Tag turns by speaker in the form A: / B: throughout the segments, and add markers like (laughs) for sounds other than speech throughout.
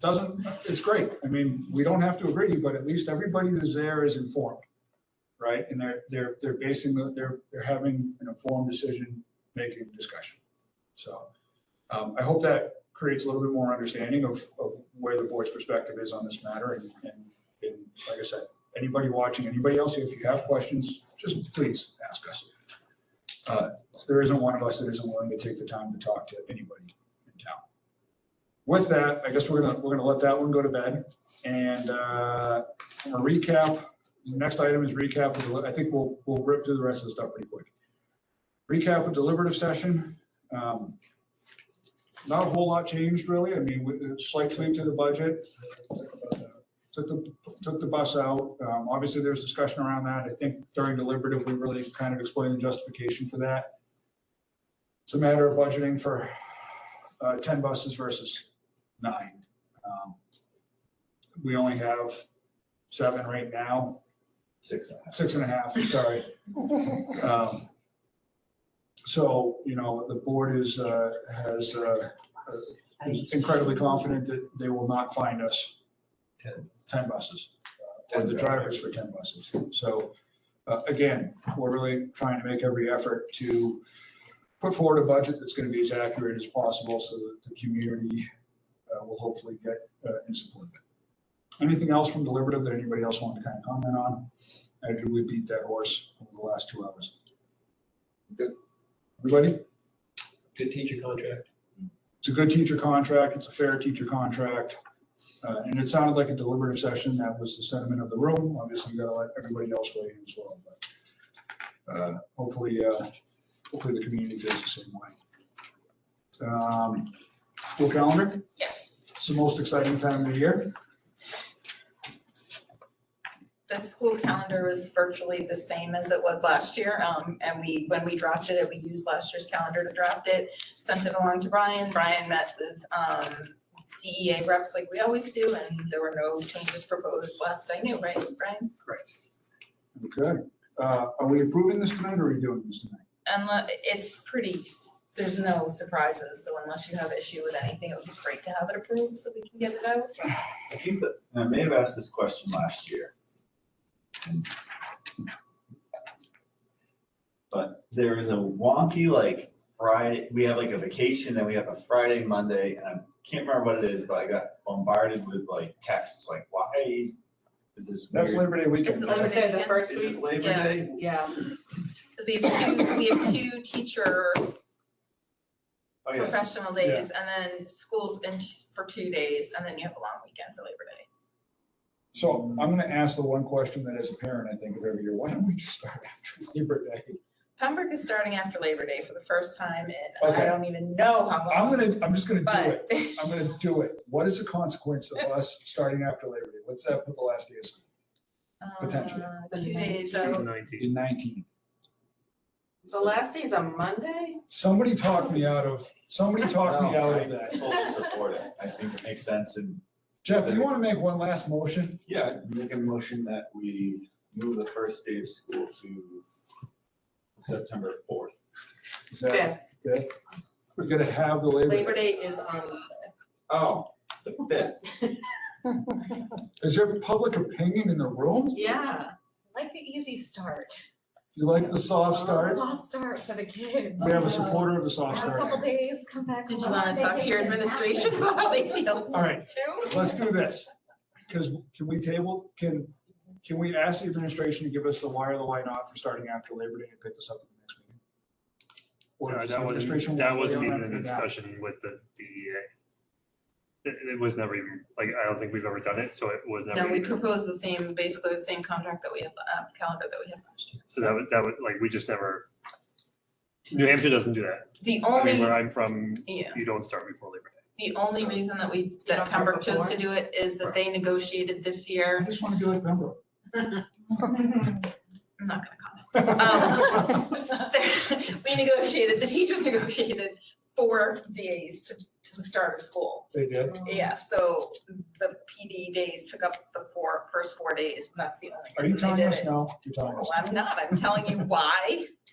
A: doesn't, it's great. I mean, we don't have to agree, but at least everybody that's there is informed, right? And they're, they're, they're basing, the- they're, they're having an informed decision-making discussion. So um, I hope that creates a little bit more understanding of, of where the board's perspective is on this matter. And, and, and like I said, anybody watching, anybody else, if you have questions, just please ask us. Uh, There isn't one of us that isn't willing to take the time to talk to anybody in town. With that, I guess we're gonna, we're gonna let that one go to bed. And uh, from a recap, the next item is recap. of the- I think we'll, we'll rip through the rest of the stuff pretty quick. Recap of deliberative session. Um, Not a whole lot changed really. I mean, with a slight tweak to the budget. Took the, took the bus out. Um, Obviously, there's discussion around that. I think during deliberative, we really kind of explained the justification for that. It's a matter of budgeting for uh, 10 buses versus nine. Um, We only have seven right now,
B: Six and a
A: six and a half, sorry. Um, So, you know, the board is, uh, has, uh, is incredibly confident that they will not find us
B: half, ten.
A: 10 buses. uh, Or the drivers for 10 buses. So uh, again, we're really trying to make every effort to put forward a budget that's going to be as accurate as possible so that the community uh, will hopefully get uh, in support of it. Anything else from deliberative that anybody else wanted to kind of comment on? Or did we beat that horse over the last two hours?
B: Good.
A: Everybody?
B: Good teacher contract.
A: It's a good teacher contract. It's a fair teacher contract. Uh, And it sounded like a deliberative session. That was the sentiment of the room. Obviously, you gotta let everybody else weigh in as well. but, uh, Hopefully, uh, hopefully the community feels the same way. Um, School calendar,
C: Yes,
A: it's the most exciting time of the year.
C: the school calendar was virtually the same as it was last year. Um, and we, when we drafted it, we used last year's calendar to draft it, sent it along to Brian. Brian met with, um, DEA reps like we always do, and there were no changes proposed last I knew, right, Brian?
A: Okay. Uh, Are we approving this tonight or are we doing this tonight?
C: Unless, it's pretty, s- there's no surprises, so unless you have issue with anything, it would be great to have it approved so we can get it out.
D: I think that, and I may have asked this question last year. And- But there is a wonky like Friday, we have like a vacation and we have a Friday, Monday, and I can't remember what it is, but I got bombarded with like texts like, why is this
A: That's
D: weird?
A: Labor Day weekend.
C: It's
D: Labor
A: right?
D: Day.
E: Say the first
D: Is it
E: week,
D: Labor
C: yeah.
D: Day?
E: yeah.
C: 'Cause we have two, we have two teacher
D: Oh, yes,
C: professional days, and then school's in t- for two days, and then you have a long weekend for Labor Day.
A: So I'm gonna ask the one question that as a parent, I think of every year, why don't we just start (laughs) after Labor Day?
C: Pembroke is starting after Labor Day for the first time in,
A: Okay.
C: I don't even know how long.
A: I'm gonna, I'm just gonna do it.
C: But, (laughs)
A: I'm gonna do it. What is the consequence of us starting after Labor Day? What's that with the last day of school? Potentially.
C: uh, two days out,
B: Nineteen.
A: In nineteen.
E: The last day is a Monday?
A: Somebody talked me out of, somebody talked me
D: No.
A: out of
D: I
A: that.
D: totally support it, I think it makes sense and,
A: Jeff, do you wanna make one last motion?
D: yeah, make a motion that we move the first day of school to September fourth.
A: Is that- okay? We're gonna have the Labor
E: Labor
A: Day.
E: Day is on.
D: Oh, the fifth.
A: Is there public opinion in the room?
E: Yeah.
F: Like the easy start.
A: You like the soft start?
F: Soft start for the kids.
A: We have a supporter of the soft
F: Have a couple
A: start.
F: days, come back.
C: did you
F: home,
C: wanna talk to your
F: vacation,
C: administration
F: nothing.
C: (laughs) about how they feel?
A: All right,
C: Too?
A: let's do this. Cause can we table, can, can we ask the administration to give us the why or the why not for starting after Labor Day and pick this up in the next meeting? Or
G: Sorry,
A: does
G: that
A: the administration want
G: wasn't, that
A: to
G: wasn't
A: weigh in
G: even
A: on
G: a
A: it now?
G: discussion with the DEA. It, it was never even, like, I don't think we've ever done it, so it was never.
C: No, we
G: even-
C: proposed the same, basically the same contract that we had, uh, calendar that we had last year.
G: So that would, that would, like, we just never, New Hampshire doesn't do that.
C: The
G: I mean,
C: only,
G: where I'm from,
C: yeah,
G: you don't start before Labor Day.
C: the only reason that we,
E: don't
C: that
E: start
C: Pembroke chose to
E: before?
C: do it is that they negotiated this (laughs)
A: I
C: year.
A: just wanna be like Pembroke.
C: I'm not gonna comment.
A: Well,
C: Oh. There- We negotiated, the teachers negotiated four days to, to the start of school.
A: (laughs) They
E: Oh.
A: did.
C: Yeah, so the PD days took up the four, first four days, and that's the only
A: Are you
C: reason
A: telling
C: they did
A: us
C: it.
A: now? You're telling us.
C: No, I'm not, I'm telling you why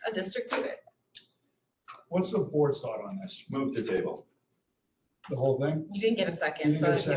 C: a district did it.
A: What's the board's thought on this?
D: Move the table.
A: The whole thing?
C: You didn't get a
A: You
C: second,
A: didn't
C: so
A: get a
C: if you